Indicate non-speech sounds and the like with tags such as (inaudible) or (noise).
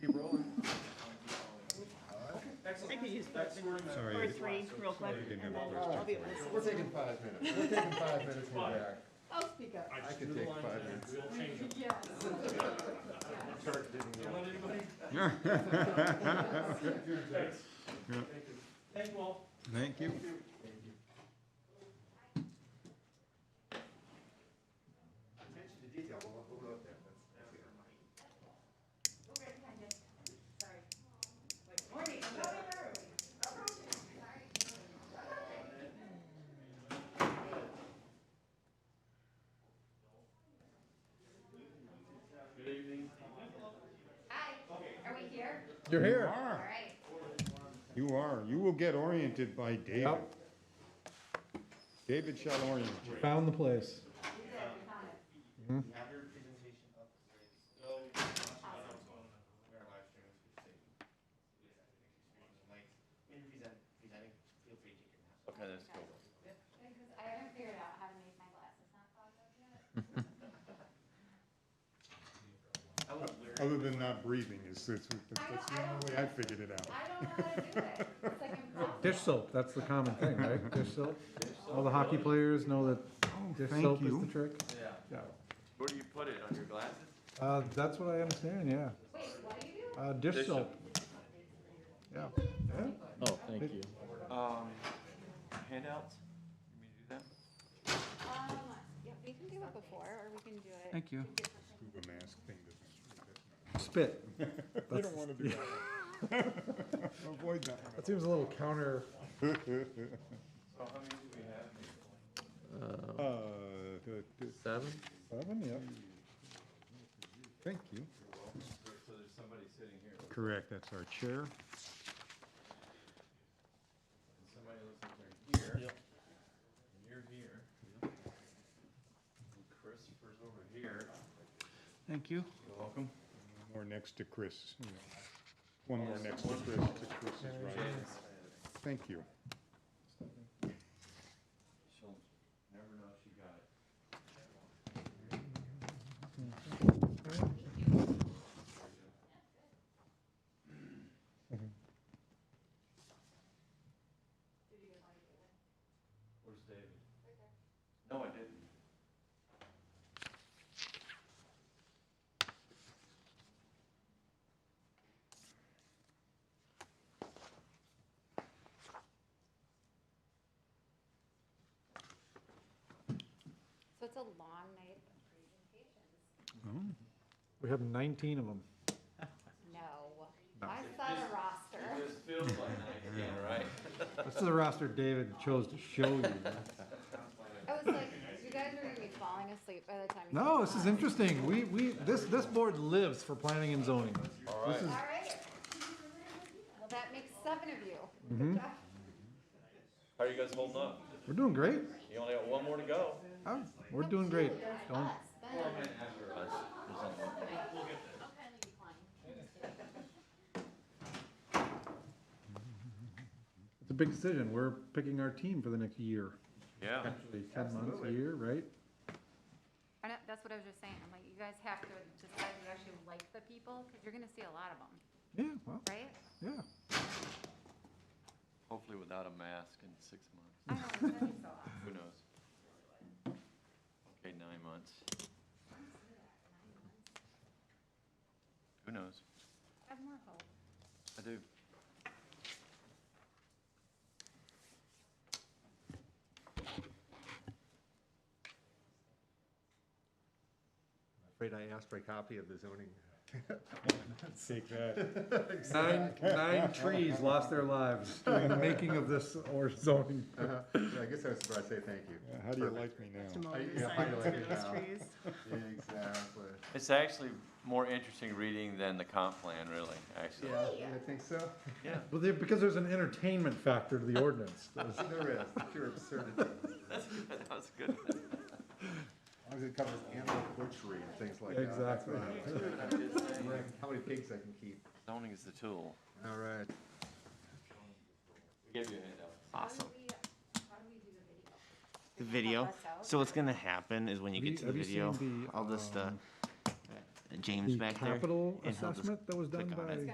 Sorry. Or three, real quick. Sorry, I didn't have and a then first I'll be able to We're listen. taking five minutes, we're taking five minutes, we're back. I'll speak up. I could take five minutes. We'll change it. Yes. Kurt didn't Don't yell. let anybody- (laughs) Thanks. Yeah. Thank you. Thank you all. Thank you. Attention to detail, we'll, we'll go up there. That's- that's good. Good evening. Hi, are we here? You're You here. All are. right. You are. You will get oriented by David. Yep. David shall orient you. Found the place. Um, Have your presentation up. We are live streaming, so just say- Like, When you're present- presenting, feel free to take your mask. Okay, that's cool. Because I haven't figured out how to make my glasses not fog up yet. I was wearing, Other than not breathing is, that's, that's the only way I figured it out. I don't know how to do it. (laughs) It's like impossible. Dish soap, that's the common thing, (laughs) right? Dish soap. All the hockey players know that dish soap is the trick. yeah. Yeah. Where do you put it, on your glasses? Uh, that's what I understand, yeah. Wait, what do you do? Uh, dish soap. Yeah. Yeah. Oh, thank you. Um, handouts? You mean do that? Um, yeah, we can do it before, or we can do it. Thank you. Scuba mask (laughs) thing doesn't. Spit. You don't wanna do that. one. (laughs) Avoid that That seems a little counter. one. So how many do we have? (laughs) Uh, th- th- Seven? Seven, yeah. Thank you. So there's somebody sitting here, Correct, that's our chair. and somebody looks like they're here. And you're here. And Christopher's over here. Thank you. You're welcome. Or next to Chris. you know. One more next to Chris, to Chris's right. Thank you. She'll never know she got it. Where's David? No, I didn't. So it's a long night of presentations. We have nineteen of them. No. I saw a roster. It just feels like night again, right? This is the roster David chose to show (laughs) you. I was like, you guys are gonna be falling asleep by the time. you No, get this is on." interesting. We, we, this, this board lives for planning and zoning. All right. All right. Well, that makes seven of you. Mhm. Good job. How are you guys holding up? We're doing great. You only got one more to go. Oh, We're doing great. Don't, Us, Ben. It's a big decision. We're picking our team for the next year, Yeah. actually ten months, a year, right? I know, that's what I was just saying, I'm like, you guys have to decide you actually like the people, because you're gonna see a lot of them, Yeah, well, right? yeah. Hopefully without a mask in six months. I know, it's gonna be so awesome. Who knows? Okay, nine months. Who knows? I have more hope. I do. Afraid I asked for a copy of the zoning. Take that. Nine, (laughs) nine trees lost their lives during the making of this or zoning. Yeah, I guess I was about to say thank you. How do you like me now? Tomorrow, I- the yeah, I silence like of it those now. trees. Exactly. It's actually more interesting reading than the comp plan, really, actually. I think so. (laughs) Yeah. Well, there, because there's an entertainment factor to the ordinance. There is, pure absurdity. That's good, (laughs) that was good. As long as it covers animal butchery and things like that. that's what I- Like, How many pigs I can keep. Zoning is the tool. All right. We gave you a handout. Awesome. How do we do the The video. video? Can you help us out? So what's gonna happen is when you get to the Have you- video, have you seen the, I'll just uh, um, James The back there. capital and he'll just assessment that was done click on by. it.